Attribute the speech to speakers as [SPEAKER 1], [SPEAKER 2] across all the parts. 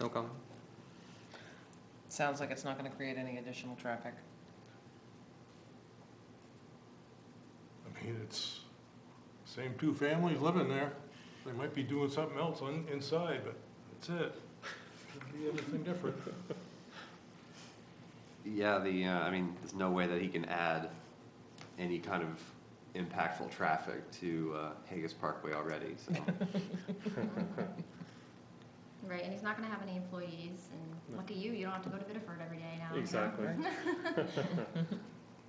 [SPEAKER 1] No comment.
[SPEAKER 2] Sounds like it's not gonna create any additional traffic.
[SPEAKER 3] I mean, it's same two families living there. They might be doing something else on, inside, but that's it. Could be anything different.
[SPEAKER 1] Yeah, the, uh, I mean, there's no way that he can add any kind of impactful traffic to uh, Haggis Parkway already, so.
[SPEAKER 4] Right, and he's not gonna have any employees, and lucky you, you don't have to go to Biddeford every day now. you know?
[SPEAKER 5] Exactly.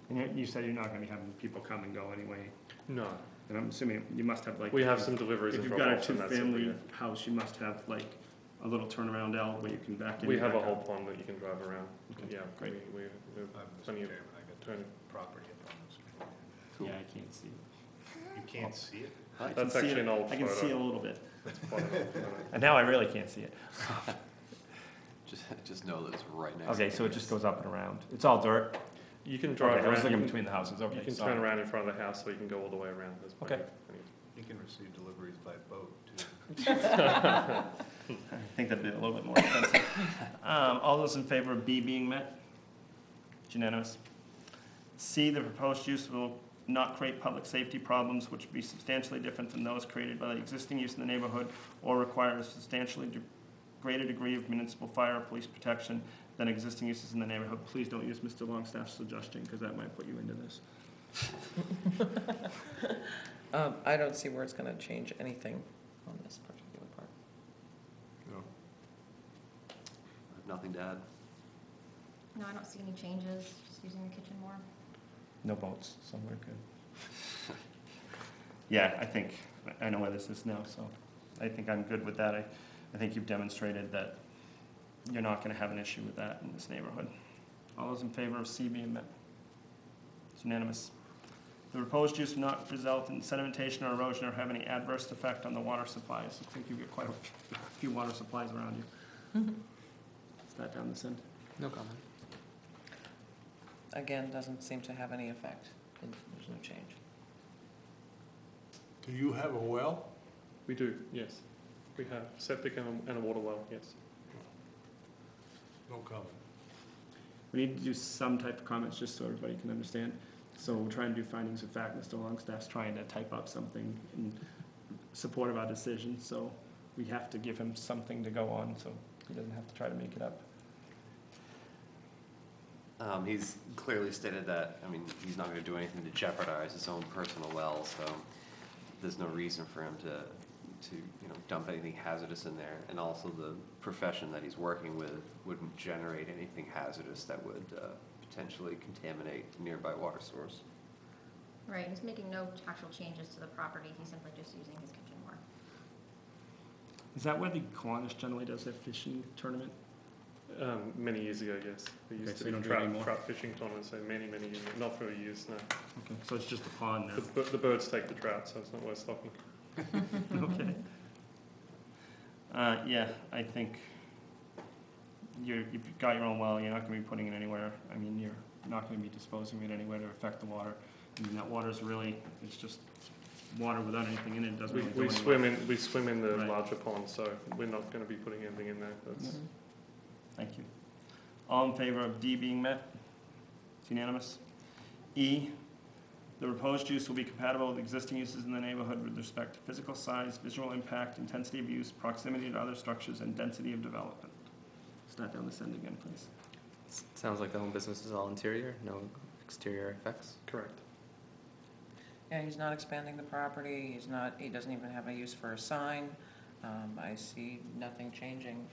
[SPEAKER 5] And you- you said you're not gonna be having people come and go anyway,
[SPEAKER 6] No,
[SPEAKER 5] and I'm assuming you must have like.
[SPEAKER 6] we have some deliveries
[SPEAKER 5] If
[SPEAKER 6] in
[SPEAKER 5] you've got a
[SPEAKER 6] Fort Walton, that's it.
[SPEAKER 5] two-family
[SPEAKER 6] we-
[SPEAKER 5] house, you must have like a little turnaround out where you can back in.
[SPEAKER 6] We
[SPEAKER 5] and
[SPEAKER 6] have a
[SPEAKER 5] back
[SPEAKER 6] whole
[SPEAKER 5] out.
[SPEAKER 6] pond that you can drive around,
[SPEAKER 5] Okay,
[SPEAKER 6] yeah, we,
[SPEAKER 5] great.
[SPEAKER 6] we, we
[SPEAKER 3] Uh,
[SPEAKER 6] have plenty of turn.
[SPEAKER 3] property up
[SPEAKER 1] Cool.
[SPEAKER 5] Yeah, I can't see.
[SPEAKER 3] You can't see it?
[SPEAKER 5] I can
[SPEAKER 6] That's
[SPEAKER 5] see
[SPEAKER 6] actually
[SPEAKER 5] it-
[SPEAKER 6] an old
[SPEAKER 5] I can see a
[SPEAKER 6] photo.
[SPEAKER 5] little bit.
[SPEAKER 6] Quite a- quite
[SPEAKER 5] And now I really can't see it.
[SPEAKER 1] Just, just know that it's right next.
[SPEAKER 5] Okay,
[SPEAKER 1] to
[SPEAKER 5] so it
[SPEAKER 1] Haggis.
[SPEAKER 5] just goes up and around. It's all dirt.
[SPEAKER 6] a- You can drive
[SPEAKER 5] Okay, I
[SPEAKER 6] around,
[SPEAKER 5] was
[SPEAKER 6] you
[SPEAKER 5] looking
[SPEAKER 6] can,
[SPEAKER 5] between the houses,
[SPEAKER 6] you
[SPEAKER 5] okay,
[SPEAKER 6] can turn
[SPEAKER 5] sorry.
[SPEAKER 6] around in front of the house, so you can go all the way around, there's plenty
[SPEAKER 5] Okay.
[SPEAKER 6] of, plenty of-
[SPEAKER 3] You can receive deliveries by boat, too.
[SPEAKER 5] I think that'd be a little bit more expensive. Um, all those in favor of B being met? It's Unanimous. C, the proposed use will not create public safety problems which would be substantially different than those created by the existing use in the neighborhood or require a substantially de- greater degree of municipal fire or police protection than existing uses in the neighborhood. Please don't use Mr. Longstaff's suggestion, because that might put you into this.
[SPEAKER 2] Um, I don't see where it's gonna change anything on this particular part.
[SPEAKER 1] I have Nothing to add.
[SPEAKER 4] No, I don't see any changes, just using the kitchen more.
[SPEAKER 5] No boats, so we're good. Yeah, I think, I know where this is now, so I think I'm good with that. I, I think you've demonstrated that you're not gonna have an issue with that in this neighborhood. All those in favor of C being met? It's unanimous. The proposed use will not result in sedimentation or erosion or have any adverse effect on the water supplies. I think you've got quite a few water supplies around you. Is that down this end?
[SPEAKER 1] No comment.
[SPEAKER 2] Again, doesn't seem to have any effect, and there's no change.
[SPEAKER 3] Do you have a well?
[SPEAKER 6] we do, yes. We have septic and a- and a water well, yes.
[SPEAKER 3] No comment.
[SPEAKER 5] We need to do some type of comments just so everybody can understand. So we're trying to do findings of fact. Mr. Longstaff's trying to type up something in support of our decision, so we have to give him something to go on, so he doesn't have to try to make it up.
[SPEAKER 1] Um, he's clearly stated that, I mean, he's not gonna do anything to jeopardize his own personal well, so there's no reason for him to, to, you know, dump anything hazardous in there. And also the profession that he's working with wouldn't generate anything hazardous that would, uh, potentially contaminate nearby water source.
[SPEAKER 4] Right, he's making no actual changes to the property, he's simply just using his kitchen more.
[SPEAKER 5] Is that where the Kiwanis generally does their fishing tournament?
[SPEAKER 6] Um, many years ago, yes. They
[SPEAKER 5] Okay,
[SPEAKER 6] used to
[SPEAKER 5] so you
[SPEAKER 6] be
[SPEAKER 5] don't do it
[SPEAKER 6] trout,
[SPEAKER 5] anymore?
[SPEAKER 6] trout fishing tournaments, so many, many years, not for years now.
[SPEAKER 5] Okay, so it's just a pond
[SPEAKER 6] The, bir- the birds take the trout, so it's not worth stocking.
[SPEAKER 5] now. Okay. Uh, yeah, I think you're, you've got your own well, you're not gonna be putting it anywhere. I mean, you're not gonna be disposing of it anywhere to affect the water. I mean, that water's really, it's just water without anything in it, it doesn't
[SPEAKER 6] We,
[SPEAKER 5] really do
[SPEAKER 6] we
[SPEAKER 5] anything.
[SPEAKER 6] swim in, we swim in the
[SPEAKER 5] Right.
[SPEAKER 6] larger pond, so we're not gonna be putting anything in there, that's,
[SPEAKER 2] Mhm.
[SPEAKER 5] Thank you. All in favor of D being met? It's unanimous. E, the proposed use will be compatible with existing uses in the neighborhood with respect to physical size, visual impact, intensity of use, proximity to other structures, and density of development. Start down this end again, please.
[SPEAKER 1] Sounds like the home business is all interior, no exterior effects.
[SPEAKER 6] correct.
[SPEAKER 2] Yeah, he's not expanding the property, he's not, he doesn't even have a use for a sign. Um, I see nothing changing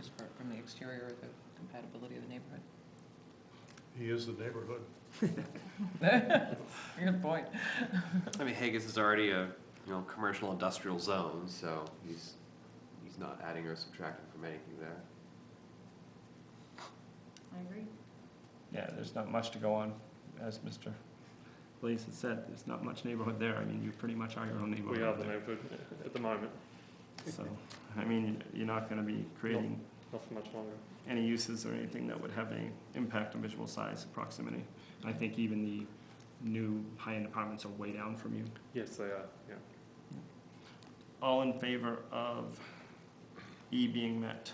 [SPEAKER 2] as far from the exterior or the compatibility of the neighborhood.
[SPEAKER 3] He is the neighborhood.
[SPEAKER 2] Good point.
[SPEAKER 1] I mean, Haggis is already a, you know, commercial industrial zone, so he's, he's not adding or subtracting from anything there.
[SPEAKER 4] I agree.
[SPEAKER 5] Yeah, there's not much to go on, as Mr. Blaze had said, there's not much neighborhood there. I mean, you pretty much are your own neighborhood.
[SPEAKER 6] We are the
[SPEAKER 5] there.
[SPEAKER 6] neighborhood at the moment,
[SPEAKER 5] So, I mean, you're not gonna be creating
[SPEAKER 6] not for much longer.
[SPEAKER 5] any uses or anything that would have any impact on visual size and proximity. I think even the new high-end apartments are way down from you.
[SPEAKER 6] Yes, they are, yeah.
[SPEAKER 5] All in favor of E being met?